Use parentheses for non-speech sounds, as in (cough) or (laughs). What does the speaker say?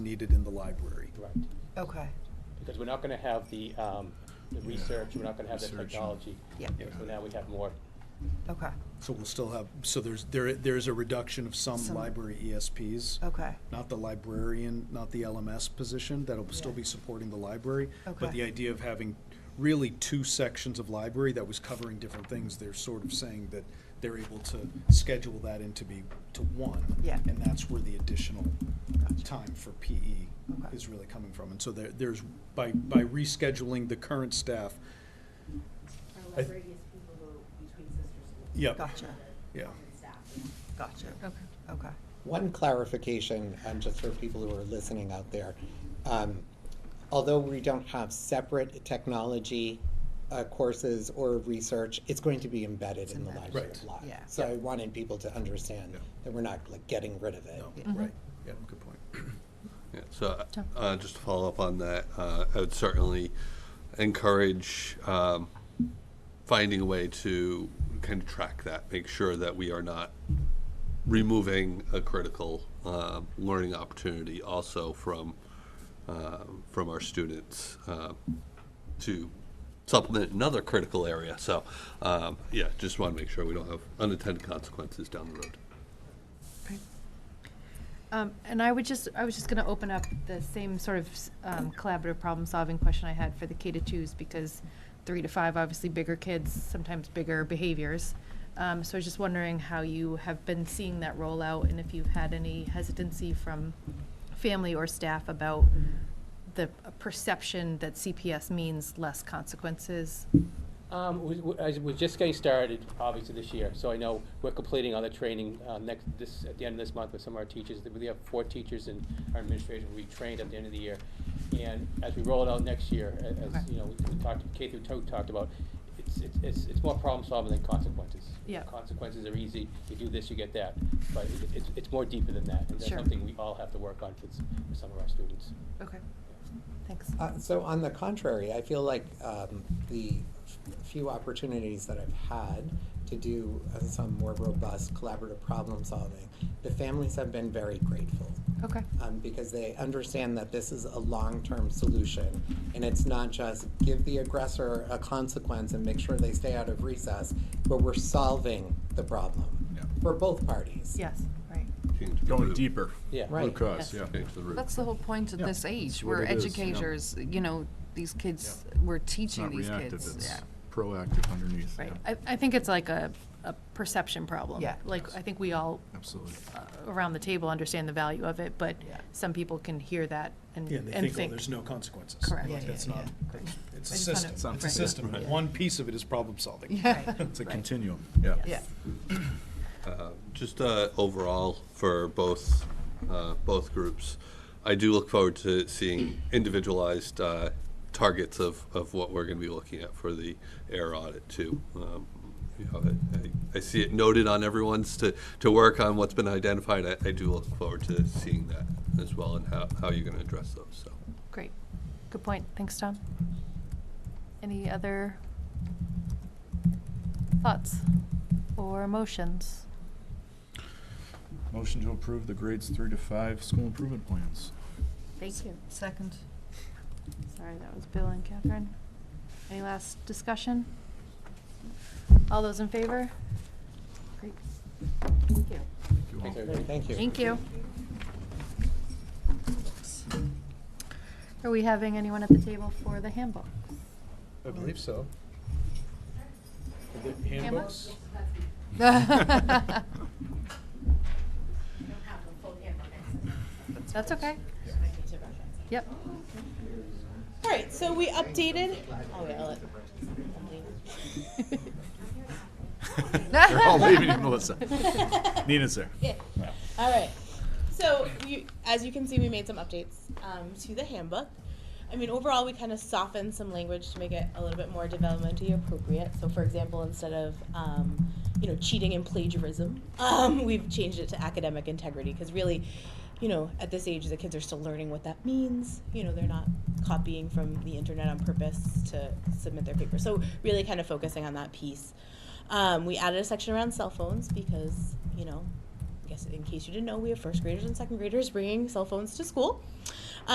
needed in the library. Right, Okay, because we're not gonna have the, um, the research, we're not gonna have the Research and- technology. Yeah. So now we have more, okay, So we'll still have, so there's, there, there's a reduction of some Some- library ESPs. okay, Not the librarian, not the LMS position, that'll still be supporting the library. But Okay. the idea of having really two sections of library that was covering different things, they're sort of saying that they're able to schedule that into be, to one. Yeah. And that's where the additional Gotcha. time for PE Okay. is really coming from. And so there, there's, by, by rescheduling the current staff, Our I th- library is people who are between sister schools. Yep. Gotcha. Yeah. Common staff. gotcha. Okay. Okay, One clarification, um, just for people who are listening out there. Um, although we don't have separate technology uh, courses or research, it's going to be embedded in the embedded. library Right. block. Yeah. So I wanted people to understand Yeah. that we're not like getting rid of it. no, Yeah. Mm-hmm. right, yeah, good point. Yeah, so, uh, just to follow up on that, uh, I would certainly encourage, um, finding a way to kind of track that, make sure that we are not removing a critical, um, learning opportunity also from, um, from our students, um, to supplement another critical area. So, um, yeah, just want to make sure we don't have unintended consequences down the road. Um, and I would just, I was just gonna open up the same sort of, s- um, collaborative problem-solving question I had for the K to twos, because three to five, obviously bigger kids, sometimes bigger behaviors. Um, so I was just wondering how you have been seeing that rollout, and if you've had any hesitancy from family or staff about the perception that CPS means less consequences. um, we, we, as we're just getting started, obviously, this year, so I know we're completing all the training, uh, next, this, at the end of this month with some of our teachers. We have four teachers in our administration we trained at the end of the year. And as we roll it out next year, a- as, Okay. you know, we we talked, K through two talked about, it's, it's, it's, it's more problem solving than consequences. Yeah. Consequences are easy, you do this, you get that, but it, it's, it's more deeper than that, and that's Sure. something we all have to work on for s- for some of our students. Okay. Thanks. Uh, so on the contrary, I feel like um, the f- few opportunities that I've had to do uh, some more robust collaborative problem solving, the families have been very grateful. Okay. um, because they understand that this is a long-term solution. And it's not just give the aggressor a consequence and make sure they stay out of recess, but we're solving the problem Yeah. for both parties. Yes, right. Change the Going route. deeper. Yeah. Right. Root cause, Yes. yeah. Change the route. That's the whole point of Yeah. this age, It's what where it is, yeah. educators, you know, these kids, we're It's teaching not these reactive, kids, it's yeah. proactive underneath. Right. yeah. I, I think it's like a, a perception problem. Yeah. Like, I think we all Absolutely. uh, around the table understand the value of it, but Yeah. some people can hear that and, Yeah, and they and think, oh, think. there's no consequences. Correct. Like, Yeah, That's yeah, not, it's a I just wanna- system, it's a Right. system, Yeah. one piece of it is problem solving. (laughs) Right. It's a Right. continuum, yeah. yeah, Just uh, overall for both, uh, both groups, I do look forward to seeing individualized uh, targets of, of what we're going to be looking at for the air audit too. Um, you know, I- I- I see it noted on everyone's to, to work on what's been identified. I, I do look forward to seeing that as well and how, how you're going to address those, so. Great. Good point. Thanks, Tom. Any other thoughts or emotions? Motion to approve the grades three to five school improvement plans. Thank you. Second. Sorry, that was Bill and Catherine. Any last discussion? All those in favor? Great. Thank you. Thank you all. Thanks, everybody. Thank you. Thank you. Are we having anyone at the table for the handbook? I believe so. Handbooks? We don't have the full handbook access. That's okay. There might be two versions. Yep. All right, so we updated. Oh, wait, I'll let. They're Oh, all leaving (laughs) you, Melissa. (laughs) Nina's there. All right. So, you, as you can see, we made some updates um, to the handbook. I mean, overall, we kind of softened some language to make it a little bit more developmentally appropriate. So, for example, instead of um, you know cheating and plagiarism, (laughs) um, we've changed it to academic integrity because really, you know, at this age, the kids are still learning what that means. You know, they're not copying from the internet on purpose to submit their paper. So, really, kind of focusing on that piece. Um, we added a section around cell phones because you know guess in case you didn't know, we have first graders and second graders bringing cell phones to school.